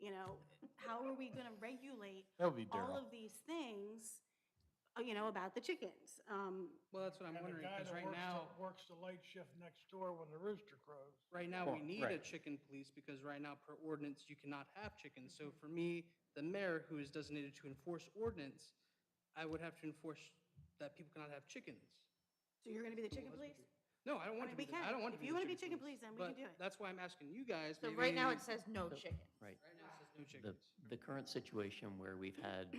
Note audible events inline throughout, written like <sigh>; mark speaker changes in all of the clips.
Speaker 1: You know, how are we going to regulate
Speaker 2: That would be
Speaker 1: all
Speaker 2: Daryl.
Speaker 1: of these things, uh, you know, about the chickens? Um,
Speaker 3: Well, that's what I'm
Speaker 4: And the
Speaker 3: wondering,
Speaker 4: guy
Speaker 3: because
Speaker 4: that
Speaker 3: right
Speaker 4: works,
Speaker 3: now,
Speaker 4: that works the late shift next door when the rooster crows.
Speaker 3: right now,
Speaker 2: Well,
Speaker 3: we need a
Speaker 2: right.
Speaker 3: chicken police, because right now, per ordinance, you cannot have chickens. So for me, the mayor, who is designated to enforce ordinance, I would have to enforce that people cannot have chickens.
Speaker 1: So you're going to be the chicken police?
Speaker 3: No, I don't want
Speaker 1: I mean,
Speaker 3: to be,
Speaker 1: we
Speaker 3: the- I
Speaker 1: can.
Speaker 3: don't want to
Speaker 1: If
Speaker 3: be.
Speaker 1: you
Speaker 3: the
Speaker 1: wanna be chicken police, then we can
Speaker 3: but
Speaker 1: do it.
Speaker 3: That's why I'm asking you guys.
Speaker 5: So
Speaker 3: maybe-
Speaker 5: right now, it says no chicken.
Speaker 6: Right.
Speaker 3: Right now, it says no
Speaker 6: The,
Speaker 3: chickens.
Speaker 6: the current situation where we've had,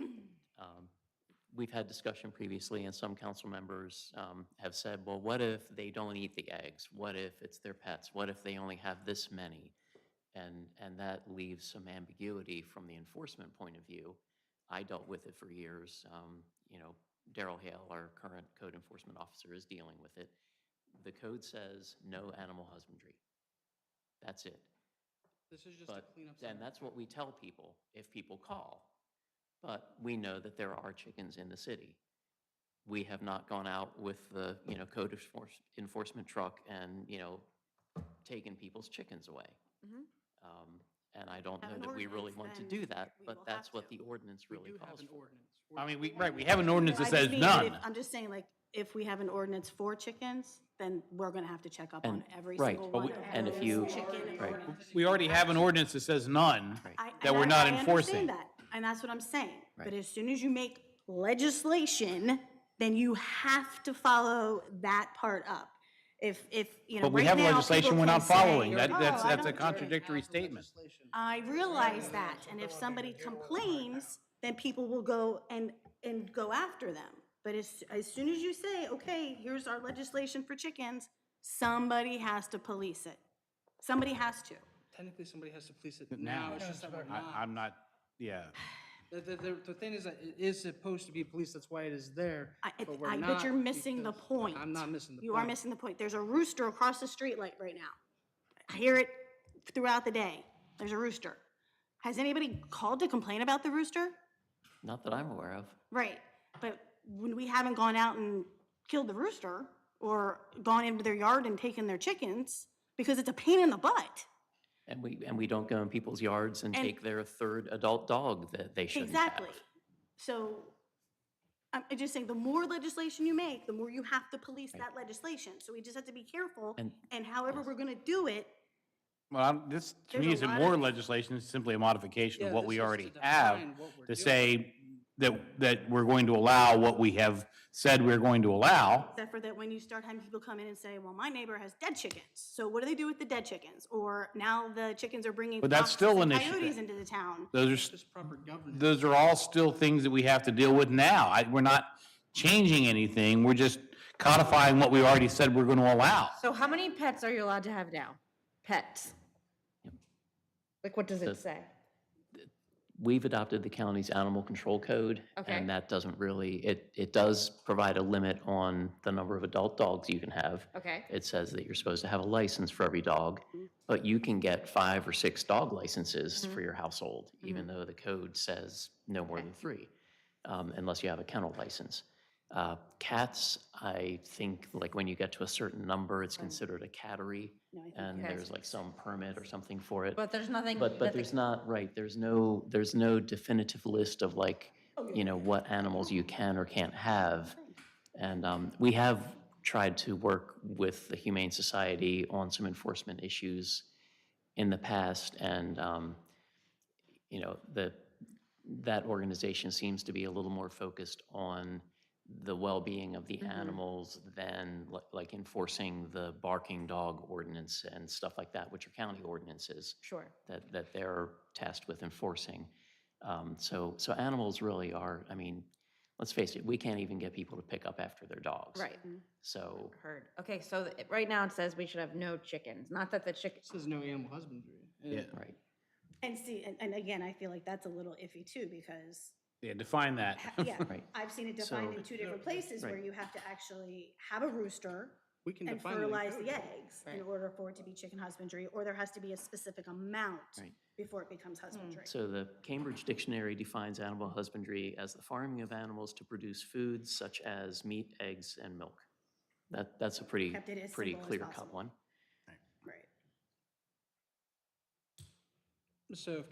Speaker 6: um, we've had discussion previously, and some council members um, have said, well, what if they don't eat the eggs? What if it's their pets? What if they only have this many? And, and that leaves some ambiguity from the enforcement point of view. I dealt with it for years. Um, You know, Daryl Hale, our current code enforcement officer, is dealing with it. The code says no animal husbandry. That's it.
Speaker 3: This is just to
Speaker 6: But,
Speaker 3: clean up. some-
Speaker 6: and that's what we tell people if people call. But we know that there are chickens in the city. We have not gone out with the, you know, code enforce- enforcement truck and, you know, taken people's chickens away. Um, And I
Speaker 1: Mm-hmm.
Speaker 6: don't
Speaker 1: Have
Speaker 6: know
Speaker 1: an
Speaker 6: that we really
Speaker 1: ordinance,
Speaker 6: want to
Speaker 1: then
Speaker 6: do that,
Speaker 1: we will
Speaker 6: but that's
Speaker 1: have
Speaker 6: what
Speaker 1: to.
Speaker 6: the ordinance
Speaker 3: We
Speaker 6: really
Speaker 3: do have
Speaker 6: calls
Speaker 3: an
Speaker 6: for.
Speaker 3: ordinance.
Speaker 2: I mean, we, right, we have an ordinance that
Speaker 1: I just
Speaker 2: says
Speaker 1: mean, if-
Speaker 2: none.
Speaker 1: I'm just saying, like, if we have an ordinance for chickens, then we're going to have to check up on
Speaker 6: And-
Speaker 1: every
Speaker 6: right,
Speaker 1: single
Speaker 6: but
Speaker 1: one
Speaker 6: we-
Speaker 1: of
Speaker 6: and if you-
Speaker 1: those chicken.
Speaker 6: right.
Speaker 2: We already have an ordinance that says none.
Speaker 1: I- and
Speaker 2: That we're
Speaker 1: I-
Speaker 2: not
Speaker 1: I understand
Speaker 2: enforcing.
Speaker 1: that, And that's what I'm saying. But
Speaker 6: Right.
Speaker 1: as soon as you make legislation, then you have to follow that part up. If, if, you know,
Speaker 2: But we
Speaker 1: right
Speaker 2: have
Speaker 1: now,
Speaker 2: legislation
Speaker 1: people
Speaker 2: we're
Speaker 1: can
Speaker 2: not
Speaker 1: say,
Speaker 2: following. That,
Speaker 1: "Oh,
Speaker 2: that's,
Speaker 1: I
Speaker 2: that's
Speaker 1: don't
Speaker 2: a
Speaker 1: do it."
Speaker 2: contradictory statement.
Speaker 3: Legislation.
Speaker 1: I realize that, and if somebody complains, then people will go and, and go after them. But as, as soon as you say, okay, here's our legislation for chickens, somebody has to police it. Somebody has to.
Speaker 3: Technically, somebody has to police it now. It's just that we're not.
Speaker 2: I, I'm not, yeah.
Speaker 3: The, the, the- the thing is, that it is supposed to be police, that's why it is there,
Speaker 1: I,
Speaker 3: but we're
Speaker 1: I
Speaker 3: not.
Speaker 1: bet you're missing the
Speaker 3: because-
Speaker 1: point.
Speaker 3: I'm not missing the
Speaker 1: You are
Speaker 3: point.
Speaker 1: missing the point. There's a rooster across the street light right now. I hear it throughout the day. There's a rooster. Has anybody called to complain about the rooster?
Speaker 6: Not that I'm aware of.
Speaker 1: Right, but when we haven't gone out and killed the rooster or gone into their yard and taken their chickens because it's a pain in the butt.
Speaker 6: And we, and we don't go in people's yards and take their third adult dog that they shouldn't have.
Speaker 1: Exactly. So I'm I'm just saying, the more legislation you make, the more you have to police that legislation. So we just have to be careful
Speaker 6: And-
Speaker 1: and however we're going to do it,
Speaker 2: Well, I'm- this, to me,
Speaker 1: There's a
Speaker 2: isn't
Speaker 1: lot
Speaker 2: more
Speaker 1: of-
Speaker 2: legislation, it's simply a modification of
Speaker 3: Yeah,
Speaker 2: what
Speaker 3: this
Speaker 2: we
Speaker 3: is to
Speaker 2: already
Speaker 3: define
Speaker 2: have,
Speaker 3: what we're
Speaker 2: to
Speaker 3: doing.
Speaker 2: say that, that we're going to allow what we have said we're going to allow.
Speaker 1: except for that when you start having people come in and say, well, my neighbor has dead chickens. So what do they do with the dead chickens? Or now the chickens are bringing
Speaker 2: But that's
Speaker 1: foxes
Speaker 2: still
Speaker 1: and
Speaker 2: an issue.
Speaker 1: coyotes into the town.
Speaker 2: Those are, s-
Speaker 3: Just proper governance.
Speaker 2: those are all still things that we have to deal with now. I, we're not changing anything, we're just codifying what we already said we're going to allow.
Speaker 5: So how many pets are you allowed to have now? Pets? Like, what does it say?
Speaker 6: We've adopted the county's animal control code.
Speaker 5: Okay.
Speaker 6: And that doesn't really, it, it does provide a limit on the number of adult dogs you can have.
Speaker 5: Okay. Mm-hmm.
Speaker 6: It says that you're supposed to have a license for every dog, but you can get five or six dog licenses for your household, even
Speaker 5: Mm-hmm.
Speaker 6: though the code says no more than three, um, unless you have a kennel license. Uh, Cats, I think, like, when you get to a certain number, it's considered a cattery, and there's like some permit or something for it.
Speaker 5: But there's nothing.
Speaker 6: But, but
Speaker 5: nothing-
Speaker 6: there's not, right, there's no, there's no definitive list of like, you know, what animals you can or can't have. And um, we have tried to work with the Humane Society on some enforcement issues in the past. And, um, you know, the, that organization seems to be a little more focused on the well-being of the animals than li- like enforcing the barking dog ordinance and stuff like that, which are county ordinances
Speaker 5: Sure.
Speaker 6: that, that they're tasked with enforcing. Um, So, so animals really are, I mean, let's face it, we can't even get people to pick up after their dogs.
Speaker 5: Right.
Speaker 6: So,
Speaker 5: Heard. Okay, so th- right now it says we should have no chickens. Not that the chickens.
Speaker 3: This is no animal husbandry. Yeah.
Speaker 6: right,
Speaker 1: And see, and, and again, I feel like that's a little iffy too,
Speaker 6: <laughs>
Speaker 1: because,
Speaker 2: Yeah, define
Speaker 1: <laughs>
Speaker 2: that.
Speaker 1: yeah,
Speaker 6: Right.
Speaker 1: I've seen it defined
Speaker 6: So-
Speaker 1: in two different places where
Speaker 6: Right.
Speaker 1: you have to actually have a rooster
Speaker 3: We can
Speaker 1: and
Speaker 3: define it. in
Speaker 1: fertilize
Speaker 3: code.
Speaker 1: the eggs in
Speaker 3: Right.
Speaker 1: order for it to be chicken husbandry, or there has to be a specific amount
Speaker 6: Right.
Speaker 1: before it becomes husbandry.
Speaker 6: so the Cambridge Dictionary defines animal husbandry as the farming of animals to produce foods such as meat, eggs, and milk. That, that's a pretty,
Speaker 1: Kept it as
Speaker 6: pretty
Speaker 1: simple as
Speaker 6: clear-cut
Speaker 1: possible.
Speaker 6: one.
Speaker 1: Right.
Speaker 3: So if